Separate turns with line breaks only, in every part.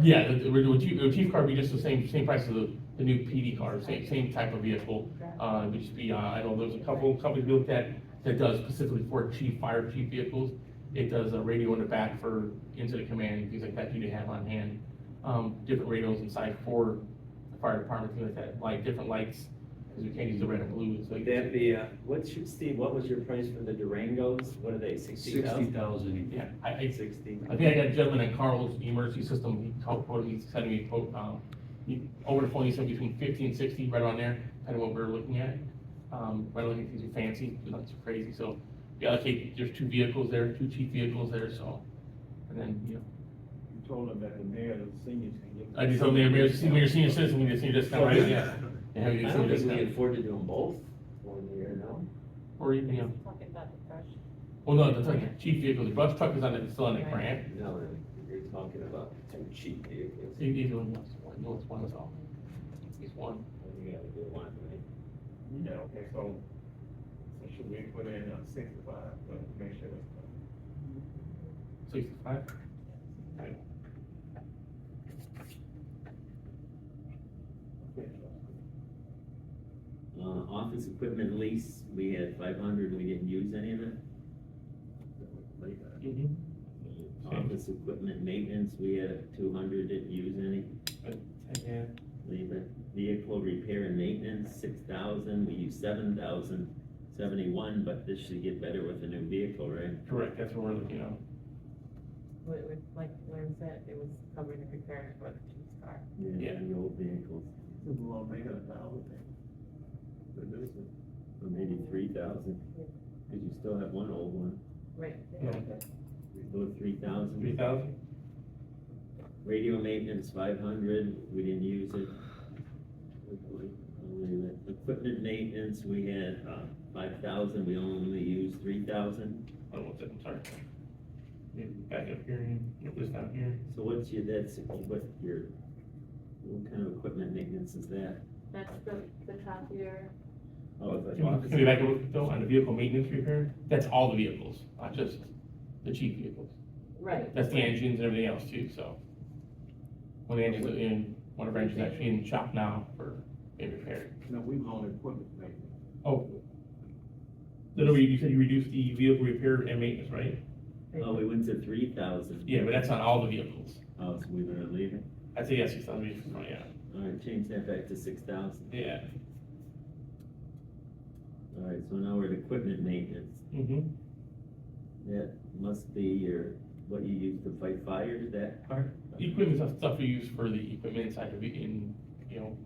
Yeah, the, the, with you- with chief car, would be just the same, same price as the, the new PD car, same, same type of vehicle. Uh, it would just be, uh, I know there's a couple companies we looked at that does specifically for chief, fire chief vehicles. It does a radio in the back for incident command and things like that you need to have on hand. Um, different radios inside for the fire department, things like that, like different lights, because we can't use the red and blue, it's like.
That the, uh, what's, your- Steve, what was your price for the Durangos? What are they, sixty
Sixty
thousand?
thousand.
Yeah, I, I,
Sixty.
I think I got a gentleman at Carl's Emergency System, he called, quoted me, sent me a quote, um, he- over the phone, he said between fifty and sixty, right around there, kind of what we're looking at. Um, we're looking at these are fancy, but not too crazy, so, yeah, okay, there's two vehicles there, two cheap vehicles there, so. And then, you know,
You told them that the mayor, the seniors can get.
I just told them, we're, we're senior citizen, we just need this kind right, yeah. Yeah,
I
we just need
don't
this
think we can
kind,
afford to do them both one year, no?
or, you know,
Talking about the brush.
well, no, that's like cheap vehicles, the bus truck is on, the- still on the grant,
No, no, you're talking about two cheap vehicles.
See, either one, wants one, no, it's one, it's all. It's one,
You gotta do one, right?
Yeah, okay, so, so should we put in uh, sixty-five, but make sure that's.
sixty-five.
Uh, office equipment lease, we had five hundred, we didn't use any of it.
Mhm.
Office equipment maintenance, we had two hundred, didn't use any.
Yeah,
Leave it. Vehicle repair and maintenance, six thousand, we used seven thousand seventy-one, but this should get better with a new vehicle, right?
correct, that's what we're looking at.
Well, it was like Lynn said, it was covering the repairs for the chief's car.
Yeah.
The old vehicles,
We won't make it a thousand.
the new one, or maybe three thousand, cause you still have one old one.
Right.
Yeah.
Go three thousand.
Three thousand?
Radio maintenance, five hundred, we didn't use it. Only the Equipment maintenance, we had, uh, five thousand, we only used three thousand,
Oh, what's that, I'm sorry. Yeah, Back up here, and get this down here.
so what's your, that's, what your, what kind of equipment maintenance is that?
That's the, the copier.
Oh, it's
Can
like-
we back up though, on the vehicle maintenance repair? That's all the vehicles, not just the cheap vehicles.
Right.
That's the engines and everything else too, so. One engine's in, one of our engines actually in shop now for being repaired.
No, we own equipment maintenance.
Oh. Then you said you reduced the vehicle repair and maintenance, right?
Oh, we went to three thousand.
Yeah, but that's not all the vehicles.
Oh, so we were leaving,
I'd say yes, six thousand vehicles, oh, yeah,
alright, change that back to six thousand,
yeah.
alright, so now we're at equipment maintenance,
Mm-hmm.
that must be your, what you use to fight fire, that part?
Equipment stuff, stuff we use for the equipment inside of it, in, you know,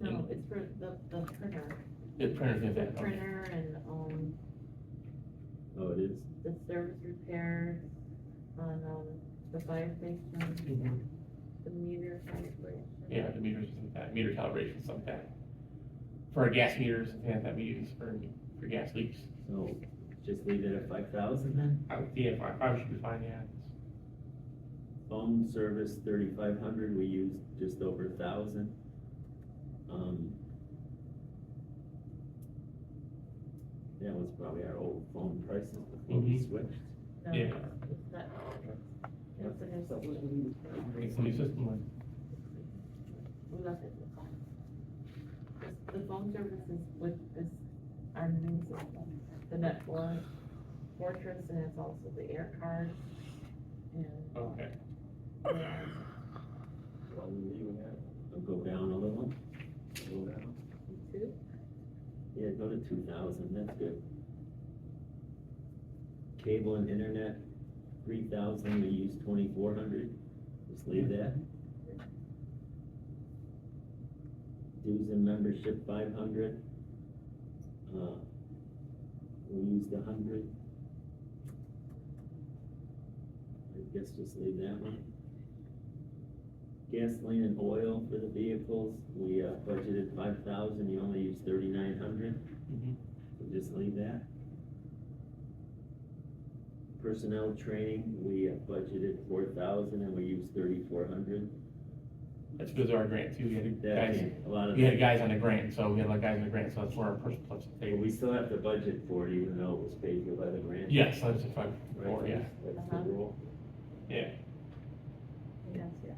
No, it's for the, the printer.
the printers and
The
that. okay.
printer and, um,
Oh, it is?
the service repairs on, um, the fire station,
Mhm.
the meter calibration.
Yeah, the meters and that, meter calibration, stuff like that. For our gas meters, and things that we use for, for gas leaks.
So just leave it at five thousand then?
I would, yeah, five, five should be fine, yeah.
Phone service thirty-five hundred, we used just over a thousand. Um. That was probably our old phone prices before we
Mhm.
switched.
No,
Yeah.
it's not- it's a new system.
It's a new system, like,
We left it in the phone. This- The phone service is with, is our new system, the net one fortress, and it's also the air card. And uh,
okay.
Well, we leaving that,
So Go down a little,
go down.
two,
yeah, go to two thousand, that's good. Cable and internet, three thousand, we used twenty-four hundred, just leave that. Dues and membership, five hundred. Uh, we used a hundred. I guess just leave that one. Gasoline and oil for the vehicles, we uh, budgeted five thousand, you only used thirty-nine hundred,
Mhm.
so just leave that. Personnel training, we uh, budgeted four thousand and we used thirty-four hundred.
That's because of our grant too, we had
That,
guys,
came- a lot of,
we had guys on the grant, so we had like guys on the grant, so that's where our personal plus
Hey, we still have to budget for it even though it was paid for by the grant.
Yes, that's a five,
Right?
four, Oh, yeah,
That's the
Uh-huh.
rule.
Yeah.